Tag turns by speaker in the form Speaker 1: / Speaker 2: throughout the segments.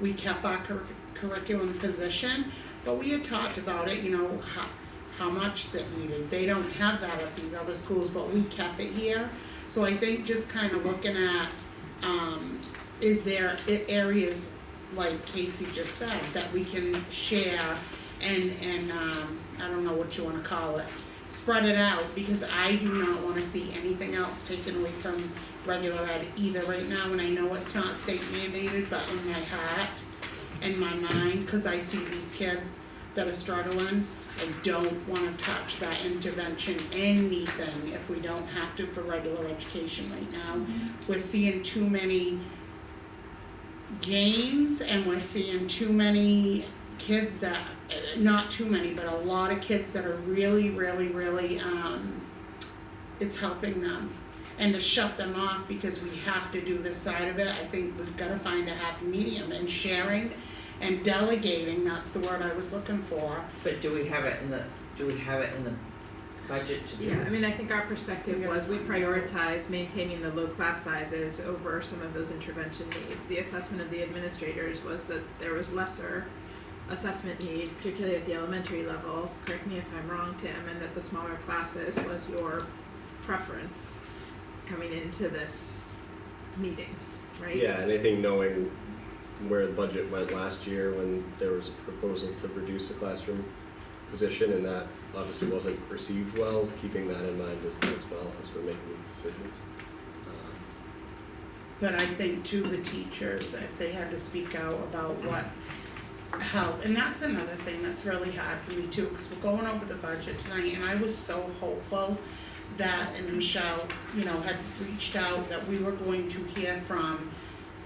Speaker 1: we kept our cur- curriculum position, but we had talked about it, you know, how, how much is it needed, they don't have that at these other schools, but we kept it here. So I think just kind of looking at, um, is there i- areas, like Casey just said, that we can share and, and, um, I don't know what you wanna call it, spread it out, because I do not wanna see anything else taken away from regular ed either right now, and I know it's not state mandated, but in my heart and my mind, cause I see these kids that are struggling, I don't wanna touch that intervention, anything, if we don't have to for regular education right now. We're seeing too many gains and we're seeing too many kids that, eh, not too many, but a lot of kids that are really, really, really, um, it's helping them. And to shut them off because we have to do this side of it, I think we've gotta find a happy medium and sharing and delegating, that's the word I was looking for.
Speaker 2: But do we have it in the, do we have it in the budget to do?
Speaker 3: Yeah, I mean, I think our
Speaker 1: We
Speaker 3: perspective
Speaker 1: gotta
Speaker 3: was we
Speaker 1: find out.
Speaker 3: prioritize maintaining the low class sizes over some of those intervention needs. The assessment of the administrators was that there was lesser assessment need, particularly at the elementary level, correct me if I'm wrong, Tim, and that the smaller classes was your preference coming into this meeting, right?
Speaker 4: Yeah, and I think knowing where the budget went last year when there was a proposal to reduce the classroom position and that obviously wasn't received well, keeping that in mind as, as well as we're making these decisions. Um,
Speaker 1: But I think too, the teachers, if they had to speak out about what, how, and that's another thing that's really hard for me too, cause we're going over the budget tonight, and I was so hopeful that, and Michelle, you know, had reached out, that we were going to hear from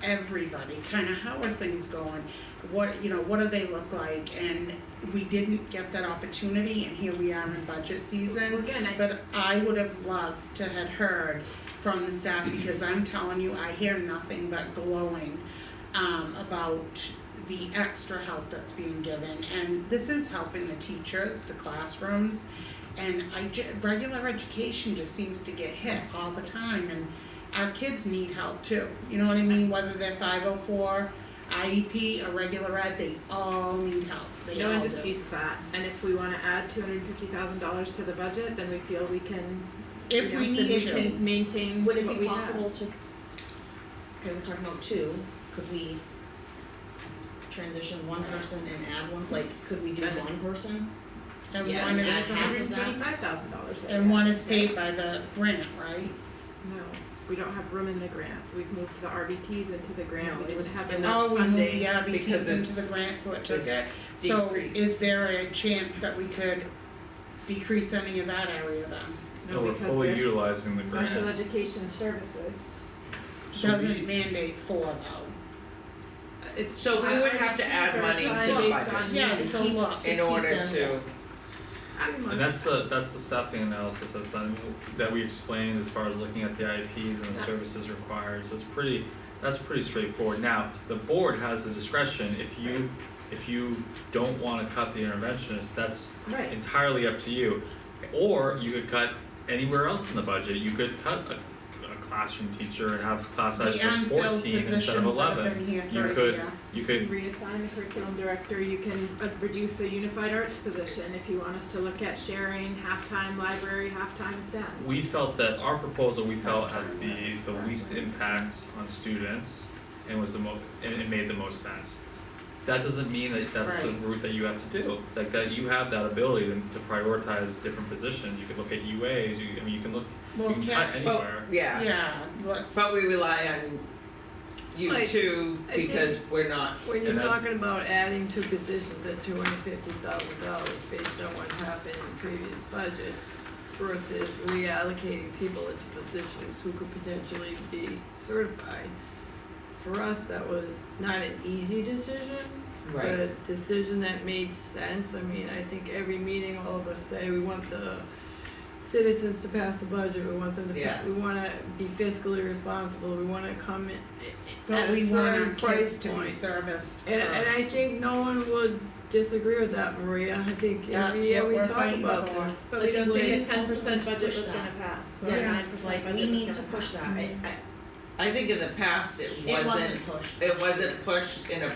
Speaker 1: everybody, kinda how are things going? What, you know, what do they look like, and we didn't get that opportunity, and here we are in budget season.
Speaker 3: Well, again, I
Speaker 1: But I would have loved to had heard from the staff, because I'm telling you, I hear nothing but glowing um about the extra help that's being given, and this is helping the teachers, the classrooms. And I ju- regular education just seems to get hit all the time, and our kids need help too, you know what I mean, whether they're five oh four, IEP, or regular ed, they all need help, they
Speaker 3: No
Speaker 1: all
Speaker 3: one
Speaker 1: do.
Speaker 3: disputes that, and if we wanna add two hundred and fifty thousand dollars to the budget, then we feel we can, you
Speaker 1: If
Speaker 3: know,
Speaker 1: we need to.
Speaker 3: then we can maintain what
Speaker 5: Would
Speaker 3: we have.
Speaker 5: it be possible to, okay, we're talking about two, could we transition one person and add one, like, could we do
Speaker 3: That's-
Speaker 5: one person?
Speaker 1: And
Speaker 3: Yeah,
Speaker 1: one
Speaker 5: and
Speaker 1: is-
Speaker 5: add
Speaker 3: two
Speaker 5: half
Speaker 3: hundred
Speaker 5: of
Speaker 3: and
Speaker 5: that.
Speaker 3: thirty-five thousand dollars
Speaker 1: And one is paid by the grant, right?
Speaker 3: No, we don't have room in the grant, we've moved the RBTs into the
Speaker 5: No,
Speaker 3: grant,
Speaker 5: it
Speaker 3: we didn't
Speaker 5: was
Speaker 3: have
Speaker 5: in
Speaker 3: enough
Speaker 1: Oh, we moved the
Speaker 3: funding,
Speaker 1: RBTs
Speaker 2: because
Speaker 1: into
Speaker 2: it's-
Speaker 1: the grant, so it took
Speaker 2: it's
Speaker 1: it. So
Speaker 2: decreased.
Speaker 1: is there a chance that we could decrease any of that area then?
Speaker 3: no,
Speaker 6: we're
Speaker 3: because
Speaker 6: fully
Speaker 3: there's
Speaker 6: utilizing the grant.
Speaker 3: special education services,
Speaker 6: So we-
Speaker 1: Doesn't mandate four though.
Speaker 3: Uh, it's.
Speaker 2: So we would have to add money to the budget.
Speaker 1: Yeah,
Speaker 5: To
Speaker 1: so
Speaker 5: keep-
Speaker 1: look,
Speaker 5: to
Speaker 2: in
Speaker 5: keep
Speaker 2: order
Speaker 5: them,
Speaker 2: to-
Speaker 5: yes.
Speaker 6: And that's the, that's the staffing analysis that's done, that we explained as far as looking at the IEPs and the
Speaker 3: Yeah.
Speaker 6: services required, so it's pretty, that's pretty straightforward. Now, the board has the discretion, if you, if you don't wanna cut the interventionist, that's
Speaker 3: Right,
Speaker 6: entirely up to you. Or you could cut anywhere else in the budget, you could cut a, a classroom teacher and have class
Speaker 1: the
Speaker 6: size of
Speaker 1: unfilled
Speaker 6: fourteen instead of eleven.
Speaker 1: positions that have been here
Speaker 6: You
Speaker 1: for a
Speaker 6: could-
Speaker 1: year.
Speaker 6: You could
Speaker 3: reassign the curriculum director, you can uh, reduce a unified arts position if you want us to look at sharing halftime library, halftime STEM.
Speaker 6: we felt that our proposal, we felt had the the least impact on students and was the mo- and it made the most sense. That doesn't mean that that's the
Speaker 1: Right.
Speaker 6: route that you have to do, like that you have that ability to to prioritize different positions, you could look at UAs, you, I mean, you can look, you
Speaker 1: Well,
Speaker 6: can cut
Speaker 1: can,
Speaker 6: anywhere.
Speaker 2: But, yeah,
Speaker 1: yeah, let's,
Speaker 2: but we rely on you
Speaker 7: Like,
Speaker 2: two
Speaker 7: I think-
Speaker 2: because we're not,
Speaker 7: When you're
Speaker 6: And that-
Speaker 7: talking about adding two positions at two hundred fifty thousand dollars based on what happened in previous budgets versus reallocating people into positions who could potentially be certified. For us, that was not an easy decision, but
Speaker 2: right,
Speaker 7: a decision that made sense. I mean, I think every meeting, all of us say, we want the citizens to pass the budget, we want them to, pa-
Speaker 2: Yes.
Speaker 7: we wanna be fiscally responsible, we wanna come in at
Speaker 1: but
Speaker 7: a
Speaker 1: we want our
Speaker 7: certain
Speaker 1: kids
Speaker 7: price
Speaker 1: to be
Speaker 7: point.
Speaker 1: serviced first.
Speaker 7: And, and I think no one would disagree with that, Maria. I think
Speaker 1: That's
Speaker 7: every year
Speaker 1: what
Speaker 7: we
Speaker 1: we're
Speaker 7: talk
Speaker 1: fighting
Speaker 7: about
Speaker 1: for.
Speaker 7: this.
Speaker 3: But
Speaker 5: So I
Speaker 3: we didn't
Speaker 5: think we
Speaker 3: think a
Speaker 5: need
Speaker 3: ten
Speaker 5: also
Speaker 3: percent
Speaker 5: to
Speaker 3: budget
Speaker 5: push
Speaker 3: was gonna
Speaker 5: that.
Speaker 3: pass, or
Speaker 1: Yeah,
Speaker 3: a nine percent budget was gonna pass.
Speaker 5: Like, we need to push that, I, I,
Speaker 2: I think in the past it
Speaker 5: it
Speaker 2: wasn't,
Speaker 5: wasn't pushed.
Speaker 2: it wasn't pushed in a